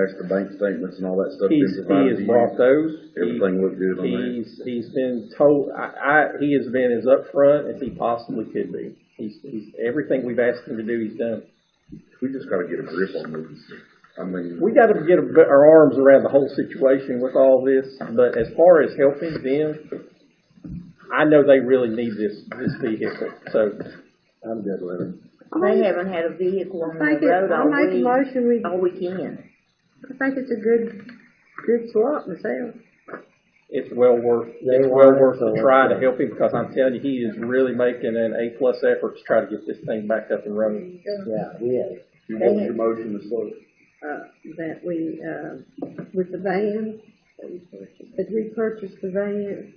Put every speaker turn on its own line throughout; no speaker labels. That's the bank statements and all that stuff. been
He's, he
provided
has
to you.
brought those. He-
Everything looked good on there.
He's, he's been told, I, I, he has been as upfront as he possibly could be. He's, he's, everything we've asked him to do, he's done.
We just gotta get a grip on this. I mean.
We gotta get a- our arms around the whole situation with all this, but as far as helping them, I know they really need this, this vehicle, so.
I'm good with it.
They haven't had a vehicle on
Make
the
it-
road all
I'll make a
week,
motion, we-
all weekend.
I think it's a good, good swap myself.
It's well worth,
They
it's well
want it,
worth
so
the
let's
try
go.
to help him, because I'm telling you, he is really making an A-plus effort to try to get this thing back up and running.
Yeah, we have.
You want your motion to slow?
Uh, that we, uh, with the van, that we purchased the van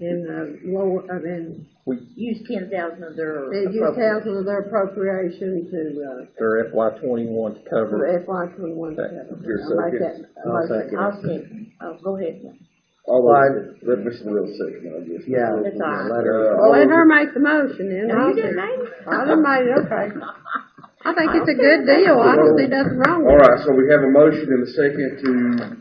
and, uh, lower, I mean,
We,
Use ten thousand of their.
they use thousand of their appropriation to, uh,
their FY twenty-one to cover.
for FY twenty-one.
Here's
I'll
second.
make that a
I'll
motion.
second.
I'll see, oh, go ahead.
All
those-
let me see real second, I guess.
Yeah.
That's all right.
Let her-
Uh,
Well, Let her make the motion and
Now,
I'll
you
second.
didn't make it.
I done made it, okay. I think it's a good deal, I don't see nothing wrong
All
with it.
right, so we have a motion and a second to,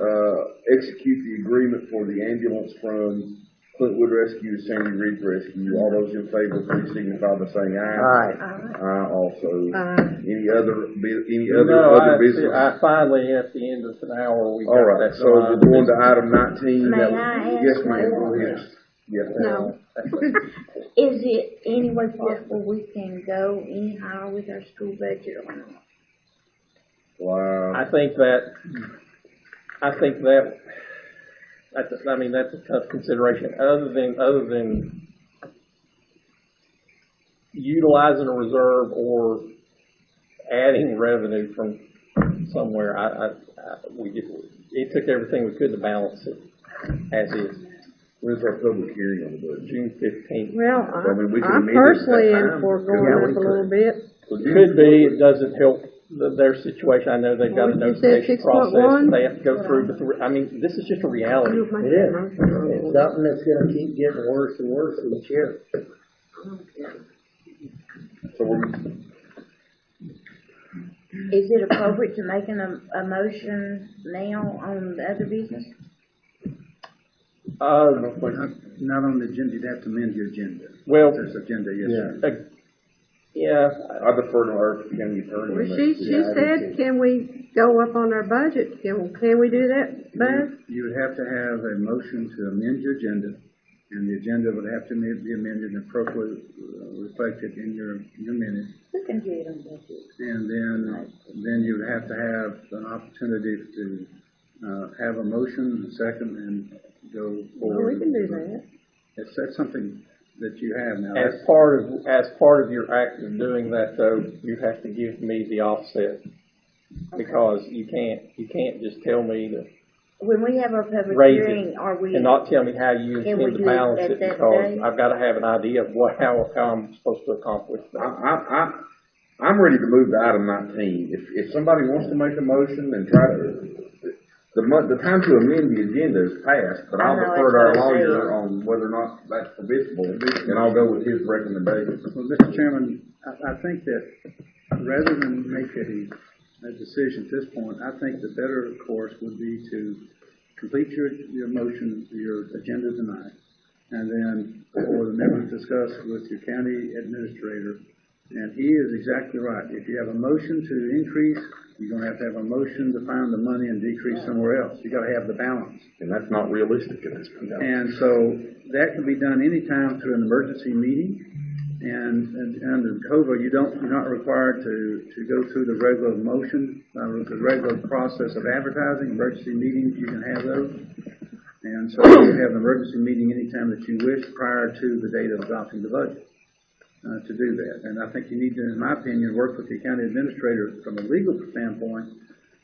uh, execute the agreement for the ambulance from Clintwood Rescue to Sandy Ridge Rescue. All those in favor, please signify by saying aye.
Alright,
Aye also.
Aye.
Any other, bu- any
No,
other,
I,
other business?
I finally, at the end of an hour, we got
All
that.
right,
uh,
so we're
done.
going to item nineteen.
May
That-
I
Yes,
ask
ma'am,
one
go ahead.
question?
Yes, ma'am.
No,
Is it any way possible we can go any higher with our school budget or not?
Wow.
I think that, I think that, that's, a- I mean, that's a tough consideration, other than, other than utilizing a reserve or adding revenue from somewhere, I, I, I, we did, it took everything we could to balance it, as is,
When's our public hearing on the budget?
June fifteenth.
well,
I mean, we
I-
can
I'm
amend it at
personally
that
in
time.
for going
Yeah, we
up a little bit.
Could be, it doesn't help the- their situation, I know they've got a
Well, you said
notification
6.1?
process, they have to go through the, three- I mean, this is just a reality.
You've made that
it is.
motion.
It's something that's gonna keep getting worse and worse each year.
So we're,
Is it appropriate to make an, a motion now on the other business?
Uh,
Not on the agenda, you'd have to amend your agenda.
Well-
There's agenda, yes, sir.
Uh, Yeah,
I defer to our county attorney.
Well,
on that.
she, she said, can we go up on our budget? Can, can we do that, Buzz?
You would have to have a motion to amend your agenda, and the agenda would have to be amended and appropriately uh, reflected in your, your minutes.
We can do it on budget.
And then, then you would have to have an opportunity to, uh, have a motion, a second, and go
Well,
forward.
we can do that.
That's, that's something that you have now.
as part of, as part of your act of doing that though, you have to give me the offset. Because you can't, you can't just tell me to,
When we have our public
Raise it
hearing, are we?
and not tell me how you
Can we
intend to
do it
balance
at
it
that
because
day?
I've gotta have an idea of what, how, how I'm supposed to accomplish
I,
that.
I, I, I'm ready to move to item nineteen. If, if somebody wants to make a motion and try to, the month, the time to amend the agenda is past, but I'll
I know,
defer to our
that's what I
lawyer
said.
on whether or not that's permissible, and I'll go with his recommendation.
Well, Mr. Chairman, I, I think that rather than make a, a decision at this point, I think the better course would be to complete your, your motion, your agenda tonight, and then for the members to discuss with your county administrator. And he is exactly right. If you have a motion to increase, you're gonna have to have a motion to find the money and decrease somewhere else. You gotta have the balance.
And that's not realistic at this point.
And so that can be done anytime through an emergency meeting. And, and under COVA, you don't, you're not required to, to go through the regular motion, uh, the regular process of advertising, emergency meetings, you can have those. And so you have an emergency meeting anytime that you wish prior to the date of adopting the budget uh, to do that. And I think you need to, in my opinion, work with the county administrator from a legal standpoint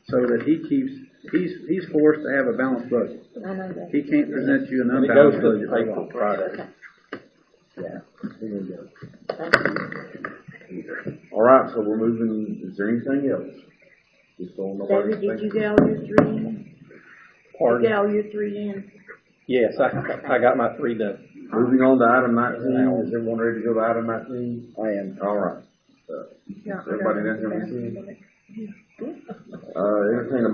so that he keeps, he's, he's forced to have a balanced budget.
I know that.
He can't present you an
And it goes
unbalanced
to the
budget.
paper Friday.
All right, so we're moving, is there anything else? Just so nobody
David, did you
thinks-
get all your three in? You
Pardon?
get all your three in?
Yes, I, I got my three done.
Moving on to item nineteen, is everyone ready to go to item nineteen?
I am.
All right.
No, I
Everybody
don't.
down here, we see? Uh, entertain a